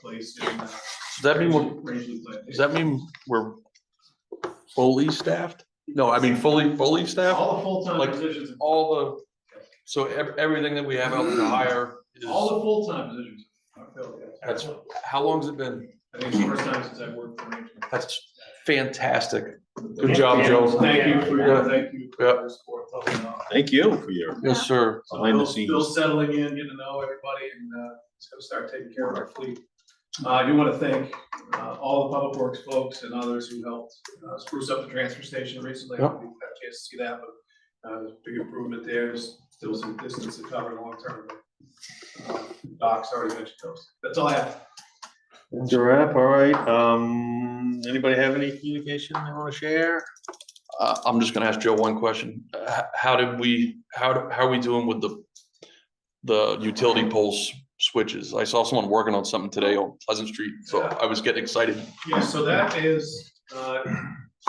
place in the. Does that mean, we're- Rangeland Clinic. does that mean we're fully staffed? No, I mean fully, fully staffed, All the full-time Like, positions, all the, so ev- everything that we have out to hire is, all the full-time positions are filled. yes. That's- how long's it been? I think it's the first time since I've worked for Rangeland. That's fantastic. Good job, Joe. Thank you for your, Yeah. thank you for Yeah. your support. helping out. Thank you for your Yes, sir. So Behind the Bill's Still scenes. settling in, getting to know everybody, and uh, it's gonna start taking care of our fleet. Uh, I do want to thank uh, all the public works folks and others who helped uh, spruce up the transfer station recently. I Yep. don't think I've had a chance to see that, but uh, there's big improvement there. There's still some distance to cover long term. but, uh, Doc's already mentioned those. That's all I have. That's a wrap, all right. Um, anybody have any communication they want to share? Uh, I'm just gonna ask Joe one question. Uh, h- how did we, how, do- how are we doing with the, the utility poles switches? I saw someone working on something today on Pleasant Street, so I was getting excited. Yeah, so that is, uh,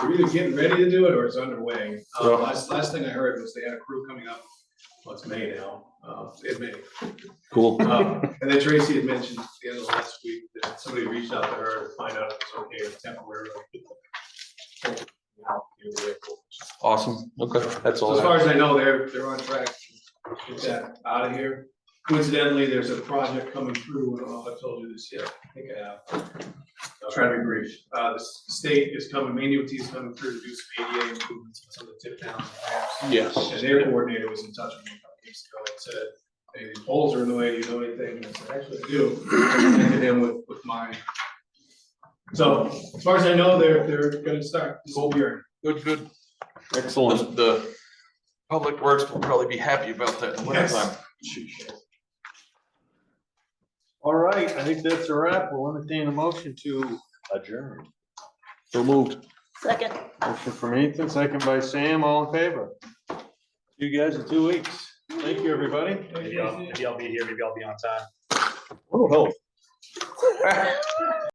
we're either getting ready to do it or it's underway. Uh, Yeah. Last, last thing I heard was they had a crew coming up, well, it's May now, uh, in May. Cool. Uh, And then Tracy had mentioned at the end of last week that somebody reached out to her to find out if it's okay to temporarily. Awesome. Okay, that's So all. as I have. far as I know, they're, they're on track to get that out of here. Coincidentally, there's a project coming through, I don't know if I told you this yet, I think I have. I'll try to be brief. Uh, the s- state is coming, Manu T is coming through to do some ADA improvements on some of the tip downs and ramps. Yes. And their coordinator was in touch with me a couple weeks ago and said, hey, these poles are in the way, you know anything? And I said, actually, I do. Connected him with, with mine. So as far as I know, they're, they're gonna start this whole year. Good, good. The, Excellent. the public works will probably be happy about that in the Yes. wintertime. All right, I think that's a wrap. We'll entertain a motion to adjourn. So moved. Second. Motion from Ethan, second by Sam, all in favor. You guys in two weeks. Thank you, everybody. Oh, Maybe I'll, maybe I'll be here, maybe I'll be on time. Oh, help.